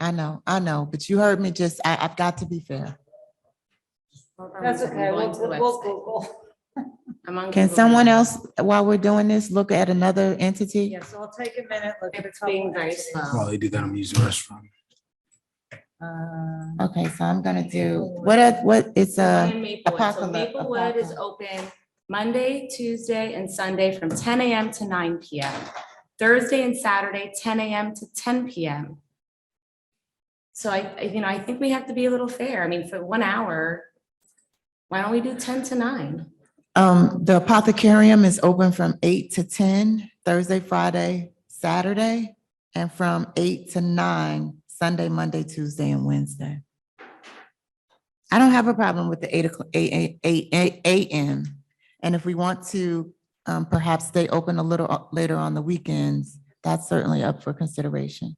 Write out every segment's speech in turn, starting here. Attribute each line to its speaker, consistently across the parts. Speaker 1: I know, I know, but you heard me just, I, I've got to be fair.
Speaker 2: That's okay. We'll, we'll we'll Google.
Speaker 1: Can someone else, while we're doing this, look at another entity?
Speaker 2: Yes, I'll take a minute, look at a
Speaker 3: It's
Speaker 2: couple
Speaker 3: being very
Speaker 2: entities.
Speaker 3: slow.
Speaker 4: While they do that, I'm using the restroom.
Speaker 2: Um,
Speaker 1: Okay, so I'm gonna do, what, are- what, it's a,
Speaker 3: And Maplewood. So
Speaker 1: apocalypse-
Speaker 3: Maplewood is open Monday, Tuesday, and Sunday from ten AM to nine PM. Thursday and Saturday, ten AM to ten PM. So I, I- you know, I think we have to be a little fair. I mean, for one hour, why don't we do ten to nine?
Speaker 1: um, the apothecarium is open from eight to ten, Thursday, Friday, Saturday, and from eight to nine, Sunday, Monday, Tuesday, and Wednesday. I don't have a problem with the eight o'clock, eight, eight, eight, eight AM. And if we want to, um, perhaps stay open a little o- later on the weekends, that's certainly up for consideration.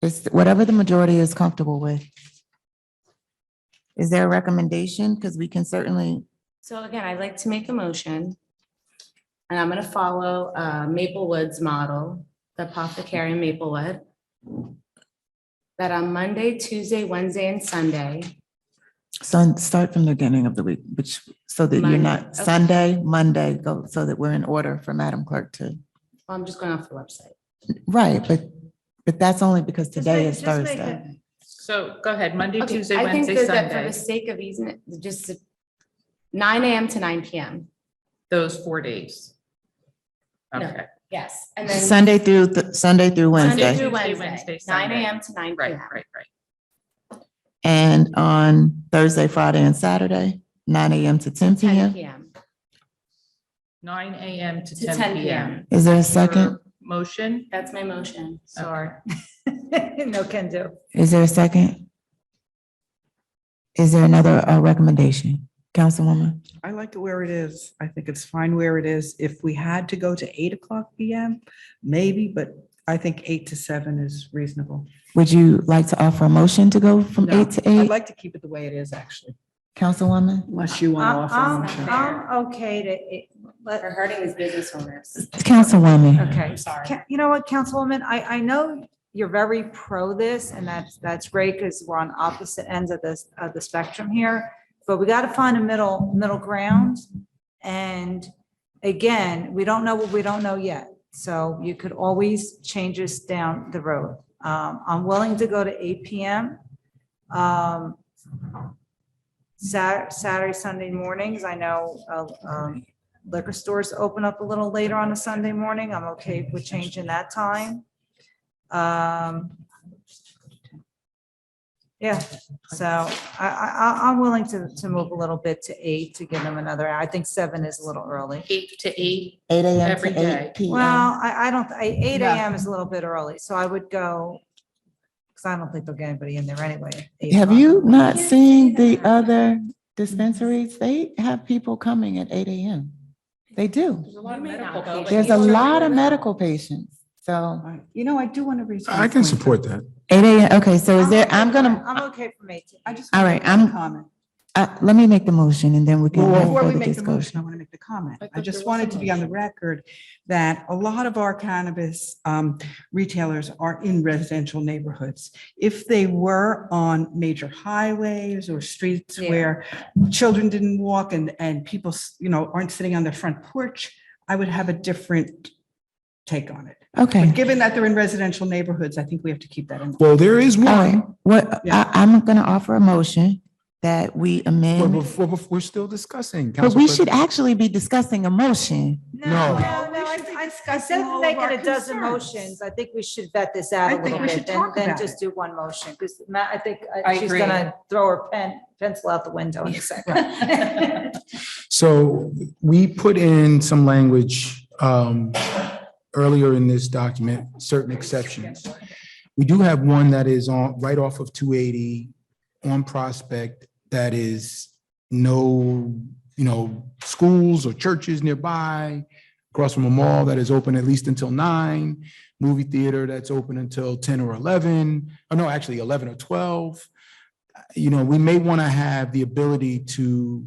Speaker 1: It's whatever the majority is comfortable with. Is there a recommendation? Because we can certainly,
Speaker 3: So again, I'd like to make a motion. And I'm gonna follow uh, Maplewood's model, the apothecary in Maplewood. That on Monday, Tuesday, Wednesday, and Sunday,
Speaker 1: so and start from the beginning of the week, which, so that you're
Speaker 3: Monday,
Speaker 1: not,
Speaker 3: okay.
Speaker 1: Sunday, Monday, go, so that we're in order for Madam Clerk to,
Speaker 3: well, I'm just going off the website.
Speaker 1: right, but, but that's only because
Speaker 2: just
Speaker 1: today
Speaker 2: make-
Speaker 1: is
Speaker 2: just make
Speaker 1: Thursday.
Speaker 2: it-
Speaker 5: So go ahead, Monday,
Speaker 3: Okay,
Speaker 5: Tuesday,
Speaker 3: I think
Speaker 5: Wednesday,
Speaker 3: that- that For
Speaker 5: Sunday,
Speaker 3: the sake of easing, it, just to- nine AM to nine PM,
Speaker 5: those four days.
Speaker 3: No.
Speaker 5: Okay,
Speaker 3: yes, and then.
Speaker 1: Sunday through, th- Sunday through
Speaker 3: Monday
Speaker 1: Wednesday,
Speaker 3: through
Speaker 5: Tuesday,
Speaker 3: Wednesday,
Speaker 5: Wednesday,
Speaker 3: nine
Speaker 5: Sunday.
Speaker 3: AM to nine
Speaker 5: right,
Speaker 3: PM.
Speaker 5: right, right.
Speaker 1: and on Thursday, Friday, and Saturday, nine AM to ten PM.
Speaker 3: Ten PM
Speaker 5: Nine AM to
Speaker 3: to
Speaker 5: ten PM.
Speaker 1: Is there a second?
Speaker 5: Your Motion,
Speaker 3: That's my motion.
Speaker 5: sorry.
Speaker 2: No can do.
Speaker 1: Is there a second? Is there another uh, recommendation, Councilwoman?
Speaker 6: I like it where it is. I think it's fine where it is. If we had to go to eight o'clock PM, maybe, but I think eight to seven is reasonable.
Speaker 1: Would you like to offer a motion to go from
Speaker 6: No,
Speaker 1: eight to
Speaker 6: I'd
Speaker 1: eight,
Speaker 6: like to keep it the way it is, actually.
Speaker 1: Councilwoman?
Speaker 6: Unless you
Speaker 5: Uh,
Speaker 2: I'm,
Speaker 6: want to
Speaker 5: um,
Speaker 2: I'm-
Speaker 6: offer. a motion.
Speaker 2: I'm Uh, um, okay to, it- let,
Speaker 3: We're hurting these business owners.
Speaker 1: Councilwoman,
Speaker 2: Okay.
Speaker 3: I'm sorry.
Speaker 2: Ca- You know what, Councilwoman, I, I know you're very pro this and that's, that's great because we're on opposite ends of this, of the spectrum here. But we got to find a middle, middle ground. And again, we don't know what we don't know yet. So you could always change this down the road. Um, I'm willing to go to eight PM. Um, Sat- Saturday, Sunday mornings, I know, uh, um, liquor stores open up a little later on a Sunday morning. I'm okay with changing that time. Um, Yeah, so I, I, I- I'm willing to, to move a little bit to eight to give them another, I think seven is a little early.
Speaker 5: Eight to eight,
Speaker 1: eight AM
Speaker 5: Every
Speaker 1: to
Speaker 5: day.
Speaker 1: eight PM.
Speaker 2: Well, I, I don't, I, eight AM is a little bit early, so I would go, because I don't think they'll get anybody in there anyway. eight
Speaker 1: Have
Speaker 2: o'clock.
Speaker 1: you not
Speaker 3: Can't
Speaker 1: seen
Speaker 3: see
Speaker 1: the
Speaker 3: that.
Speaker 1: other dispensaries? They have people coming at eight AM. They do.
Speaker 5: there's a lot of
Speaker 3: You may
Speaker 5: medical
Speaker 3: not
Speaker 5: though,
Speaker 3: be.
Speaker 5: but
Speaker 1: There's a
Speaker 5: people are
Speaker 1: lot of
Speaker 5: doing that.
Speaker 1: medical patients, so
Speaker 6: All right. You know, I do want to raise.
Speaker 4: I can support that.
Speaker 1: eight AM, okay, so is there,
Speaker 2: okay
Speaker 1: I'm
Speaker 2: for-
Speaker 1: gonna,
Speaker 2: I'm okay for eight.
Speaker 6: I just.
Speaker 1: All
Speaker 6: wanna
Speaker 1: right,
Speaker 6: make a
Speaker 1: I'm-
Speaker 6: Comment.
Speaker 1: uh, let me make the motion and then we can
Speaker 6: Well,
Speaker 1: have
Speaker 6: Before we
Speaker 1: further
Speaker 6: make the motion, I
Speaker 1: discussion.
Speaker 6: want to make the comment.
Speaker 5: I
Speaker 6: I
Speaker 5: thought
Speaker 6: just
Speaker 5: there was
Speaker 6: wanted
Speaker 5: a
Speaker 6: to be on the record that a lot of our cannabis um, retailers are in residential neighborhoods. If they were on major highways or streets
Speaker 2: Yeah.
Speaker 6: where children didn't walk and, and people, s- you know, aren't sitting on their front porch, I would have a different take on it. But
Speaker 1: Okay,
Speaker 6: given that they're in residential neighborhoods, I think we have to keep that in.
Speaker 4: Well, there is
Speaker 1: all right,
Speaker 4: one,
Speaker 1: what, I,
Speaker 6: Yeah.
Speaker 1: I'm gonna offer a motion that we
Speaker 4: but
Speaker 1: amend,
Speaker 4: before, before, we're still discussing.
Speaker 1: but we
Speaker 4: Council
Speaker 1: should
Speaker 4: President.
Speaker 1: actually be discussing a motion.
Speaker 2: No,
Speaker 4: No.
Speaker 2: no,
Speaker 6: No, we
Speaker 2: no, I,
Speaker 6: should be
Speaker 2: I- I
Speaker 6: discussing
Speaker 2: said
Speaker 6: all of
Speaker 2: making
Speaker 6: our
Speaker 2: a dozen
Speaker 6: concerns.
Speaker 2: motions. I think we should vet this out a
Speaker 6: I think
Speaker 2: little
Speaker 6: we
Speaker 2: bit,
Speaker 6: should
Speaker 2: then,
Speaker 6: talk
Speaker 2: then
Speaker 6: about
Speaker 2: just do one motion, because Matt, I think uh,
Speaker 5: I
Speaker 2: she's
Speaker 5: agree.
Speaker 2: gonna throw her pen, pencil out the window in a second.
Speaker 4: So we put in some language um, earlier in this document, certain exceptions. We do have one that is on, right off of 280 on Prospect that is no, you know, schools or churches nearby, across from a mall that is open at least until nine, movie theater that's open until 10 or 11, oh no, actually 11 or 12. You know, we may want to have the ability to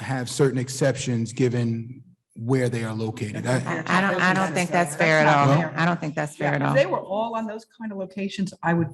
Speaker 4: have certain exceptions given where they are located. I-
Speaker 1: I I don't, I don't think that's fair at
Speaker 6: That's not
Speaker 1: all.
Speaker 6: fair.
Speaker 1: I don't think that's fair at
Speaker 6: Yeah,
Speaker 1: all.
Speaker 6: If they were all on those kind of locations, I would be